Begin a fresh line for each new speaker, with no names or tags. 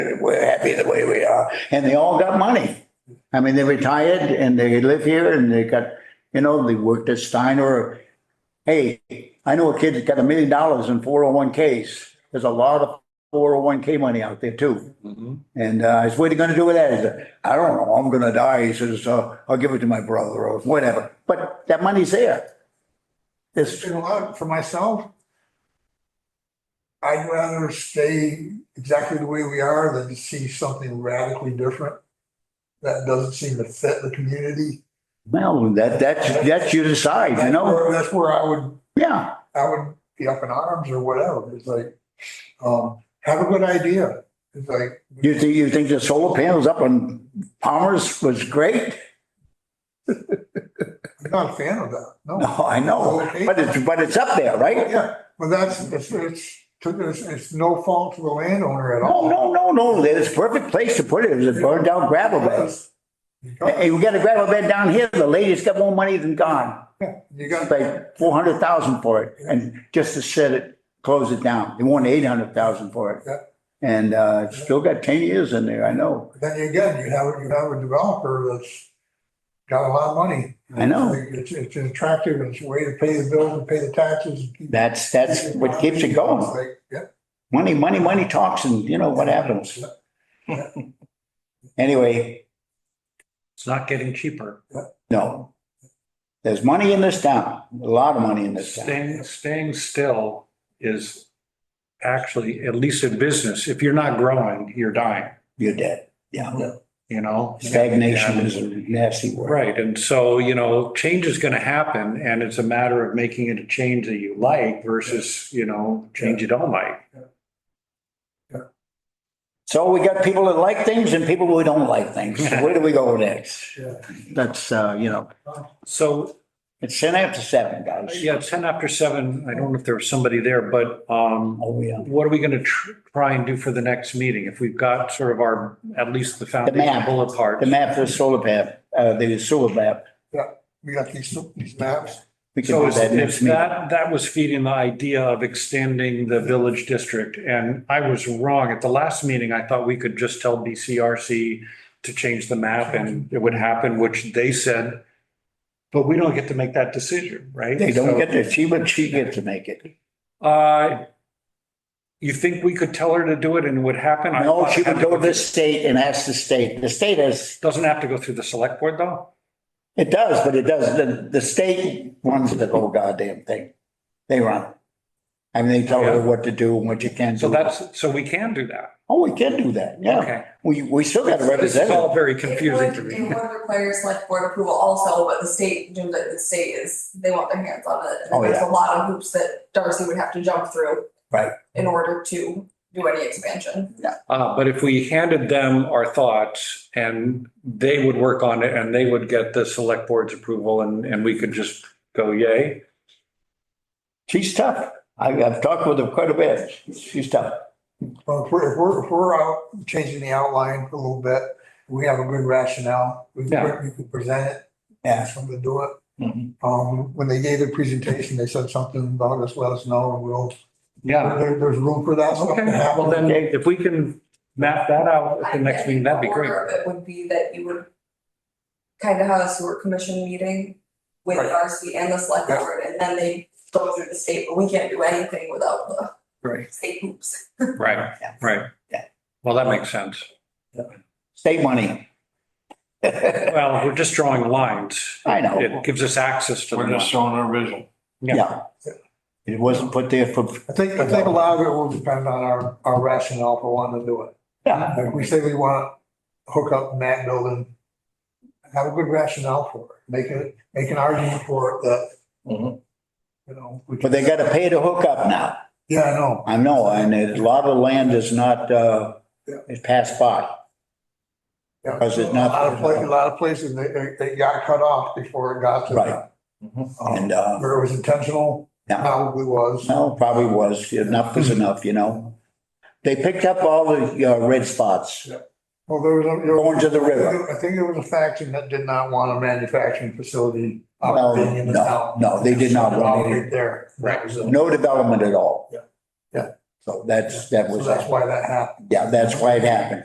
we're happy the way we are, and they all got money. I mean, they retired and they live here and they got, you know, they worked at Steiner. Hey, I know a kid that got a million dollars in four oh one Ks. There's a lot of four oh one K money out there too.
Mm-hmm.
And uh, I said, what are you gonna do with that? He said, I don't know, I'm gonna die. He says, uh, I'll give it to my brother or whatever, but that money's there.
It's
This,
been a lot for myself. I'd rather stay exactly the way we are than see something radically different that doesn't seem to fit the community.
well, that, that's, that's you decide, you
That's
know?
where- That's where I would,
Yeah,
I would be up in arms or whatever. It's like, um, have a good idea. It's like,
you think, you think the solar panels up on Palmer's was great?
I'm not a fan of that, no.
No, I know, but it's, but it's up there, right?
Yeah, but that's, it's, it's, it's, it's no fault to the landowner at all.
No, no, no, no, there's a perfect place to put it, it's a burned down gravel bed.
Because-
Hey, we got a gravel bed down here, the lady's got more money than gone.
You
She
got.
paid four hundred thousand for it, and just to set it, close it down, they wanted eight hundred thousand for it.
Yeah.
And, uh, it's still got ten years in there, I know,
Then again, you have, you have a developer that's got a lot of money.
I know.
It's, it's attractive, and it's a way to pay the bills and pay the taxes. and keep-
that's, that's what keeps it going.
It's like, Yep.
Money, money, money talks and you know what happens. Anyway,
It's not getting cheaper.
no. There's money in this town, a lot of money in this town.
Staying, staying still is actually, at least in business, if you're not growing, you're dying,
You're dead. Yeah.
you know?
Stagnation
And-
is a nasty word.
Right, and so, you know, change is gonna happen, and it's a matter of making it a change that you like versus, you know, change you don't like.
So we got people that like things and people who don't like things. So Where do we go next?
Yeah.
That's, uh, you know,
So,
it's ten after seven, guys.
Uh, yeah, ten after seven, I don't know if there was somebody there, but, um,
Oh, yeah.
what are we gonna tr- try and do for the next meeting? If we've got sort of our, at least the foundation
map.
bullet parts.
The map for the solar map, uh, the sewer map.
We got these, these maps.
We can
So
do
is
that next
is
meeting.
that, that was feeding the idea of extending the village district, and I was wrong. At the last meeting, I thought we could just tell BCRC to change the map and it would happen, which they said, but we don't get to make that decision, right?
They
So,
don't get to, she, but she gets to make it.
Uh, you think we could tell her to do it and it would happen? I
No,
thought
she
it had
would go to
through-
the state and ask the state. The state has
Doesn't have to go through the select board though?
It does, but it does, the, the state runs the whole goddamn thing. They run. it. I mean, they tell her what to do and what you can do.
So that's, so we can do that.
Oh, we can do that, yeah.
Okay.
We, we still got a
This is
representative.
all very
It
confusing
would-
to me.
It would require select board approval also, but the state, Jim, that the state is, they want their hands on it. And
Oh,
There's
yeah.
a lot of hoops that Darcy would have to jump through.
Right.
In order to do any expansion.
Uh, but if we handed them our thoughts and they would work on it and they would get the select board's approval and, and we could just go yay.
She's tough. I, I've talked with her quite a bit. She's tough.
Well, if we're, if we're, if we're out changing the outline a little bit, we have a good rationale. We
Yeah.
can, we can present it,
Yeah.
ask them to do it.
Mm-hmm.
Mhm.
Um, when they gave their presentation, they said something about us, let us know, and we'll,
Yeah.
there, there's room for that stuff
Okay.
to happen.
Well, then if we can map that out at the next meeting, that'd be great.
Order of it would be that you would kind of have a sewer commission meeting with
Right.
Darcy and the select
Yeah.
board, and then they go through the state, but we can't do anything without the
Right.
state hoops.
Right,
Yeah.
right.
Yeah.
Well, that makes sense.
State money. I
Well, we're just drawing lines.
know,
It gives us access to the
We're just
money.
showing our vision.
yeah. It wasn't put there for,
I think, I think a lot of it will depend on our, our rationale for wanting to do it.
yeah,
Like we say we want to hook up that building, have a good rationale for it, make it, make an argument for it that,
Mhm.
you know. we
but they
can-
gotta pay to hook up now.
Yeah, I know.
I know, and a lot of land is not, uh,
Yeah.
is passed by.
Yeah.
Because it's
A
not-
lot of places, a lot of places, they, they- they got cut off before it got to.
Right.
um,
And, uh,
Where it was intentional,
Yeah.
probably was.
No, probably was. Enough was enough, you know? They picked up all the uh, red spots.
Well, there was. a- there was-
Going to the river.
I think there was a faction that did not want a manufacturing facility
No,
operating in the
no,
town.
no, they did not want it.
Right There. That was it.
No development at all.
Yeah.
So that's, that
So
was,
that's why that happened.
yeah, that's why it happened.